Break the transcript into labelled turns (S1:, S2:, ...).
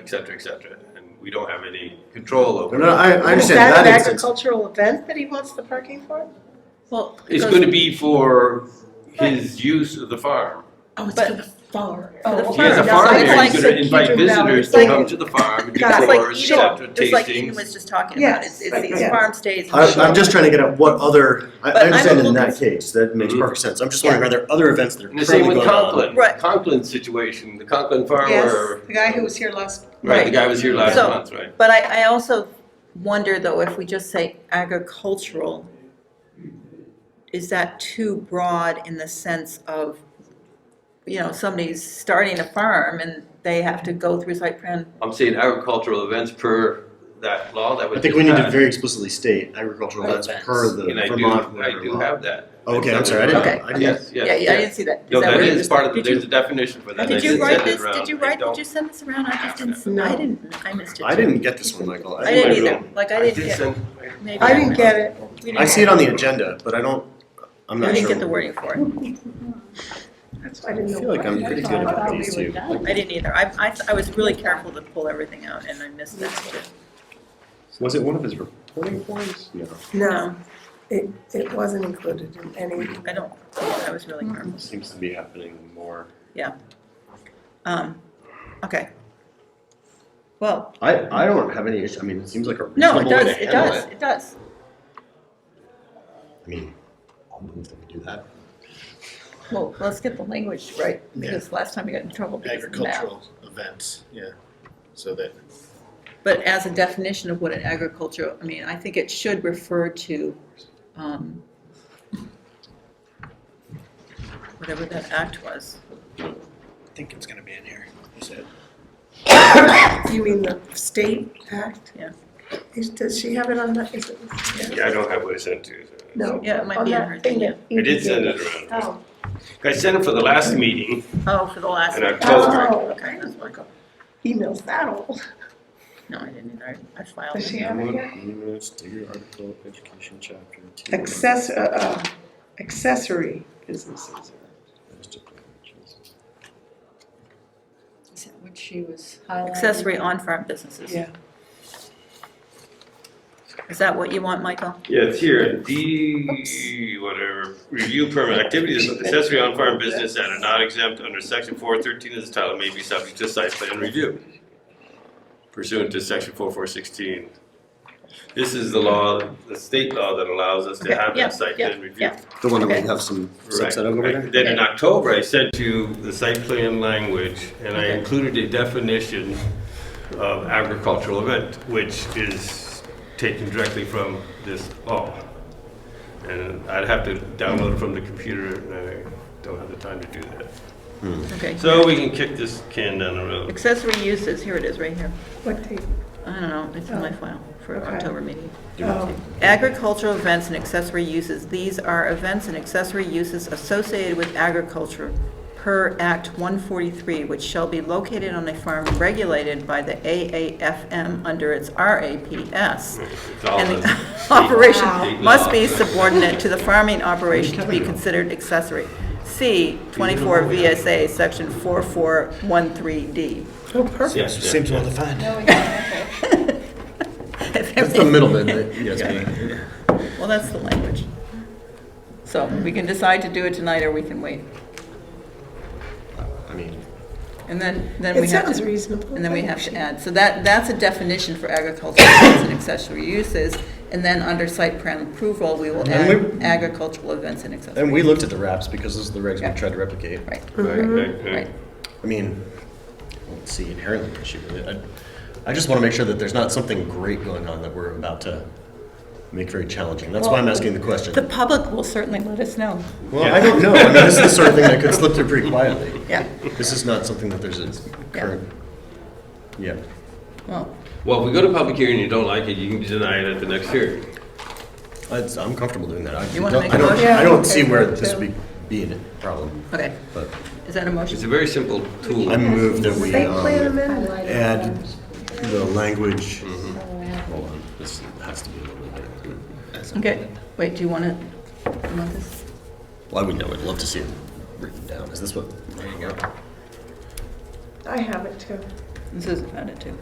S1: et cetera, et cetera. And we don't have any control over.
S2: No, I, I
S3: Is
S2: understand
S3: that
S2: that
S3: an
S2: instance.
S3: agricultural event that he wants the parking for?
S4: Well,
S1: It's
S4: because-
S1: going to be for his use of the farm.
S4: Oh, it's
S3: But-
S4: for the farm.
S3: Oh,
S4: Oh,
S3: The
S1: He has a
S3: farm,
S1: farm
S3: that's
S1: here,
S3: like-
S1: he's going to invite
S3: Kitchen Valley.
S1: visitors
S3: It's
S1: to
S3: like-
S1: come to the farm and do
S3: Got it.
S4: It's like
S1: tours, et
S4: Eden,
S1: cetera,
S4: just like Eden
S1: tastings.
S4: was just talking about,
S3: Yes.
S4: it's, it's these
S3: Yeah.
S4: farm stays.
S2: I, I'm just trying to get at what other, I,
S4: But
S2: I
S4: I'm
S2: understand
S4: a
S2: in
S4: little
S2: that case, that makes
S5: Mm-hmm.
S1: Mhm.
S2: perfect sense. I'm just wondering, are there other events that are
S1: And the same
S2: currently
S1: with
S2: going on?
S1: Conklin,
S4: Right.
S1: Conklin's situation, the Conklin farmer,
S3: Yes, the guy who was here last.
S1: right, the guy was here last
S4: So-
S1: month, right?
S4: But I, I also wonder though, if we just say agricultural, is that too broad in the sense of, you know, somebody's starting a farm and they have to go through site plan?
S1: I'm saying agricultural events per that law that was
S2: I think we need to
S1: just
S2: very explicitly state agricultural events
S4: Events.
S2: per
S1: passed.
S2: the
S1: And I do,
S2: Vermont
S1: I
S2: whatever
S1: do
S2: law.
S1: have that.
S2: Okay, I'm
S1: It's
S2: sorry, I
S1: under-
S2: didn't,
S4: Okay.
S2: I didn't.
S1: Yes,
S4: Yeah,
S1: yes,
S4: yeah, I
S1: yes.
S4: didn't see that. Is
S1: No, that
S4: where you-
S1: is part of, the
S4: did you-
S1: there's a definition for that.
S4: Did
S1: I
S4: you
S1: just
S4: write
S1: sent it
S4: this, did
S1: around.
S4: you
S1: I
S4: write,
S1: don't-
S4: did you send this around? I just didn't,
S3: No.
S4: I didn't, I missed it.
S2: I
S4: too.
S2: didn't get this one, Michael.
S4: I didn't
S1: I
S4: either, like I
S1: I
S4: didn't
S1: did
S4: get,
S1: send,
S4: maybe
S3: I didn't get it.
S4: We
S2: I
S4: didn't
S2: see
S4: get
S2: it on the agenda, but I don't, I'm
S4: I
S2: not
S4: didn't
S2: sure.
S4: get the wording for it,
S3: That's why I didn't know.
S2: I feel like I'm
S3: what-
S2: pretty
S3: I
S2: good
S3: thought
S2: about
S3: we
S2: these
S3: were
S2: two.
S3: done.
S4: I didn't either, I, I, I was really careful to pull everything out and I missed this too.
S5: Was it one of his reporting points? No.
S3: No, it, it wasn't included in any.
S4: I don't, I was really careful.
S5: Seems to be happening more.
S4: Um, okay. Well,
S2: I, I don't have any issue, I mean, it seems like a
S4: no,
S2: reasonable
S4: it
S2: way
S4: does,
S2: to
S4: it
S2: handle
S4: does,
S2: it.
S4: it does.
S2: I mean, I'll move that we do that.
S4: Well, let's get the language right, because last time we got in trouble because of the map.
S6: agricultural events, yeah. So that,
S4: But as a definition of what an agricultural, I mean, I think it should refer to, um, whatever that act was.
S6: I think it's gonna be in here, you said.
S3: You mean the state act?
S4: Yeah.
S3: Is, does she have it on that? Is it?
S1: yeah, I don't have what I sent to you. so-
S3: No.
S4: Yeah, it might
S3: on
S4: be in
S3: that
S4: her
S3: thing
S4: thing, yeah.
S3: that
S1: I did
S3: you
S1: send it around.
S3: Oh,
S1: I sent it for the last meeting
S4: Oh, for the last.
S1: in October.
S3: oh,
S4: Okay,
S3: okay.
S4: that's what I got.
S3: Emails that old.
S4: No, I didn't either. I filed.
S3: Does
S4: it.
S3: she have it here?
S5: Minutes, do your article, education chapter. two.
S3: Access, uh, uh, accessory businesses.
S7: Is that what she was highlighting?
S4: Accessory on-farm businesses.
S3: Yeah.
S4: Is that what you want, Michael?
S1: Yeah, it's here, D, whatever, review permit, activities of accessory on-farm business that are not exempt under section four thirteen of this title may be subject to site plan review pursuant to section four four sixteen. This is the law, the state law that allows us to
S4: Okay,
S1: have
S4: yeah,
S1: that site
S4: yeah,
S1: plan review.
S4: yeah.
S2: The one that we
S4: Okay.
S2: have some
S1: Right.
S2: subset of over there?
S1: I- Then in October, I sent you the site plan language, and I included a definition of agricultural event, which is taken directly from this law. And I'd have to download it from the computer, and I don't have the time to do that.
S4: Okay.
S1: So we can kick this can down the road.
S4: Accessory uses, here it is, right here.
S3: What date?
S4: I don't know, it's in my file for
S3: Oh. Okay.
S4: October meeting.
S3: Oh,
S4: Agricultural events and accessory uses. These are events and accessory uses associated with agriculture per Act 143, which shall be located on a farm regulated by the AAFM under its RAPS.
S1: It's all
S4: And
S1: the
S4: the operation
S1: Wow.
S4: must be subordinate to the farming operation to be considered accessory. C, 24 VSA, Section 4413D.
S1: Yeah,
S3: oh,
S6: Perfect,
S1: yeah,
S6: seems well defined.
S7: No, we got it, okay.
S2: That's the middle bit, that- yes, ma'am.
S4: Well, that's the language. So we can decide to do it tonight, or we can wait.
S2: I mean,
S4: And then, then
S3: It
S4: we have
S3: sounds
S4: to,
S3: reasonable.
S4: and then we have to add, so that, that's a definition for agricultural events and accessory uses. And then under site plan approval, we will
S2: And
S4: add
S2: we-
S4: agricultural events and accessory.
S2: and we looked at the wraps because those are the regs
S4: Yeah.
S2: we tried to replicate.
S4: Right,
S1: right, right, right.
S4: right.
S2: I mean, I don't see inherently an issue with it. I, I just want to make sure that there's not something great going on that we're about to make very challenging. That's why I'm asking the question.
S4: The public will certainly let us know.
S2: well, I don't know. I mean, this is the sort of thing that could slip through pretty quietly.
S4: Yeah,
S2: This is not something that there's a current. Yeah.
S4: well,
S1: Well, if we go to public hearing and you don't like it, you can deny it at the next hearing.
S2: I'd- I'm comfortable doing that. I
S4: You wanna
S2: don't,
S4: make
S2: I
S4: a
S2: don't,
S4: motion?
S2: I
S3: Yeah,
S2: don't see
S3: okay,
S2: where
S3: me
S2: this
S3: too.
S2: would be, being a problem,
S4: okay.
S2: but
S4: Is that a
S1: It's
S4: motion?
S1: a very simple tool.
S2: I move that we
S3: State plan
S2: um,
S3: amendment.
S2: add the language.
S7: Highlighted.
S2: Mm-hmm. Hold on, this has to be a little bit better.
S4: Okay, wait, do you want to, you want this?
S2: Well, I would know. I'd love to see it written down. Is this what? There you go.
S3: I have it too.
S4: This is about it too,